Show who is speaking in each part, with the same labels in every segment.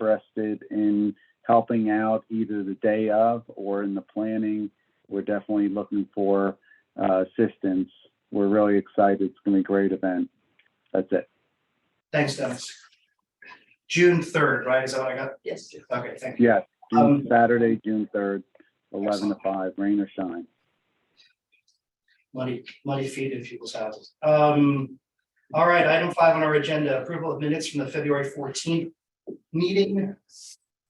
Speaker 1: interested in helping out either the day of or in the planning, we're definitely looking for uh, assistance. We're really excited. It's going to be a great event. That's it.
Speaker 2: Thanks, Dennis. June third, right? Is that what I got?
Speaker 3: Yes. Jim.
Speaker 2: Okay, thank you.
Speaker 1: Yes, June-
Speaker 2: Um,
Speaker 1: Saturday, June 3rd, 11 to
Speaker 2: Excellent.
Speaker 1: 5, rain or shine.
Speaker 2: Muddy, muddy feet in people's houses. Um, all right, item five on our agenda, approval of minutes from the February fourteenth meeting.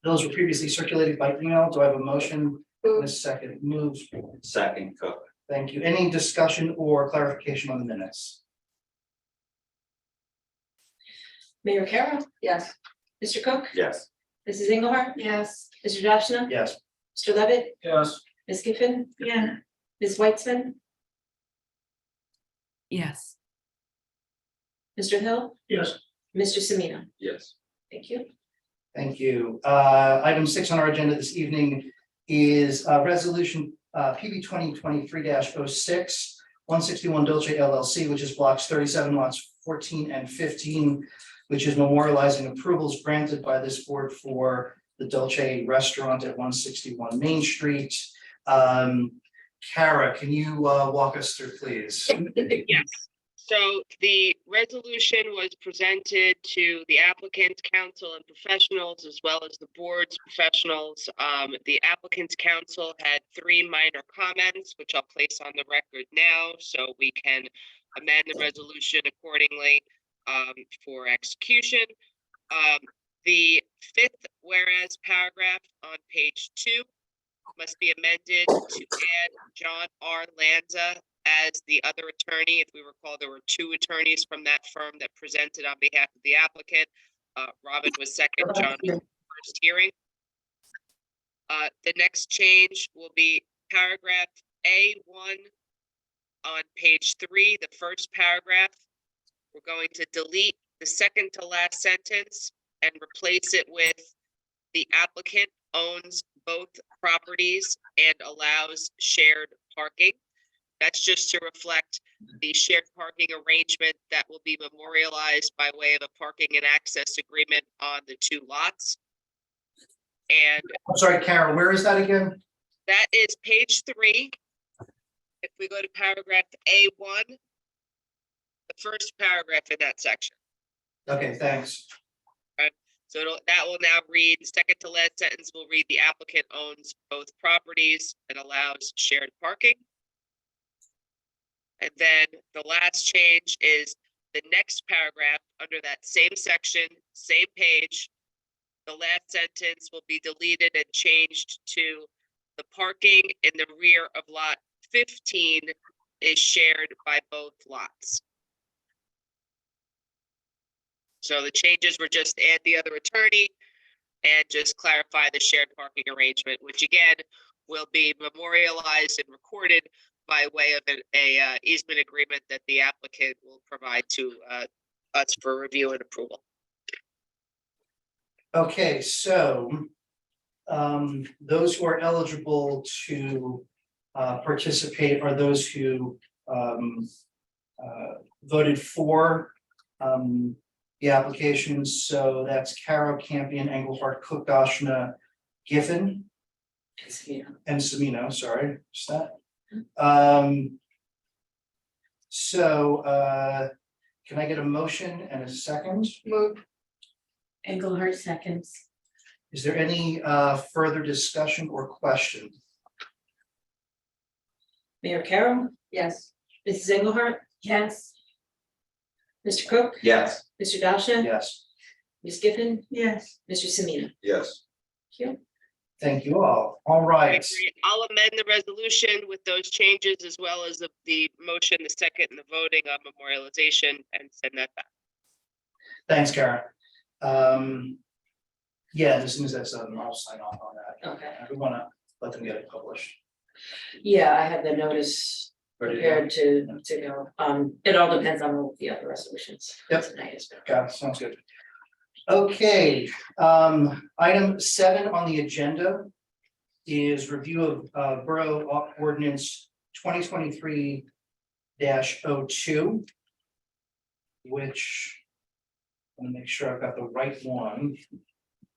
Speaker 2: Those were previously circulated by email. Do I have a motion? A second, moves.
Speaker 4: Second Cook.
Speaker 2: Thank you. Any discussion or clarification on the minutes?
Speaker 3: Mayor Carroll? Yes. Mr. Cook?
Speaker 4: Yes.
Speaker 3: Mrs. Engelhardt? Yes. Mr. Doshna?
Speaker 2: Yes.
Speaker 3: Mr. Levitt?
Speaker 2: Yes.
Speaker 3: Ms. Giffen? Yeah. Ms. Weitzman?
Speaker 5: Yes,
Speaker 3: Mr. Hill?
Speaker 2: Yes.
Speaker 3: Mr. Semina?
Speaker 4: Yes.
Speaker 3: Thank you.
Speaker 2: Thank you. Uh, item six on our agenda this evening is, uh, resolution, uh, PB twenty twenty-three 6 one sixty-one Dolce LLC, which is blocks thirty-seven lots fourteen and fifteen, which is memorializing approvals granted by this board for the Dolce Restaurant at one sixty-one Main Street. Um, Kara, can you, uh, walk us through, please?
Speaker 6: Yes. So the resolution was presented to the applicant's council and professionals as well as the board's professionals. Um, the applicant's council had three minor comments, which I'll place on the record now, so we can amend the resolution accordingly um, for execution. Um, the fifth whereas paragraph on page two must be amended to add John R. Lanza as the other attorney. If we recall, there were two attorneys from that firm that presented on behalf of the applicant. Uh, Robin was second, John was first hearing. Uh, the next change will be paragraph A one on page three, the first paragraph. We're going to delete the second to last sentence and replace it with the applicant owns both properties and allows shared parking. That's just to reflect the shared parking arrangement that will be memorialized by way of a parking and access agreement on the two lots. And
Speaker 2: I'm sorry, Kara, where is that again?
Speaker 6: that is page three. If we go to paragraph A one, the first paragraph in that section.
Speaker 2: Okay, thanks.
Speaker 6: So it'll, that will now read, the second to last sentence will read, the applicant owns both properties and allows shared parking. And then the last change is the next paragraph under that same section, same page. The last sentence will be deleted and changed to the parking in the rear of lot fifteen is shared by both lots. So the changes were just add the other attorney and just clarify the shared parking arrangement, which again will be memorialized and recorded by way of an a uh, easement agreement that the applicant will provide to uh, us for review and approval.
Speaker 2: Okay, so um, those who are eligible to uh, participate are those who um, uh, voted for um, the applications. So that's Caro, Campion, Engelhardt, Cook, Dashna, Giffen,
Speaker 3: Semina.
Speaker 2: and Semino, sorry, what's that? Um, So uh, can I get a motion and a second?
Speaker 3: Move. Engelhardt seconds.
Speaker 2: Is there any uh, further discussion or question?
Speaker 3: Mayor Carroll? Yes. Mrs. Engelhardt? Yes. Mr. Cook?
Speaker 4: Yes.
Speaker 3: Mr. Doshna?
Speaker 2: Yes.
Speaker 3: Ms. Giffen? Yes. Mr. Semina?
Speaker 4: Yes.
Speaker 3: Thank you.
Speaker 2: Thank you all. All
Speaker 6: I
Speaker 2: right.
Speaker 6: agree. I'll amend the resolution with those changes as well as the- the motion, the second, and the voting on memorialization and send that back.
Speaker 2: Thanks, Karen. Um, yeah, as soon as that's done, I'll sign off on that.
Speaker 3: Okay.
Speaker 2: I don't wanna let them get it published.
Speaker 3: Yeah, I have the notice
Speaker 2: Ready to go?
Speaker 3: prepared to, to go. Um, it all depends on all the other resolutions.
Speaker 2: Yep.
Speaker 3: Tonight as well.
Speaker 2: Got it. Sounds good. Okay, um, item seven on the agenda is review of uh Borough Ordinance twenty twenty-three oh 2 which I'm gonna make sure I've got the right one.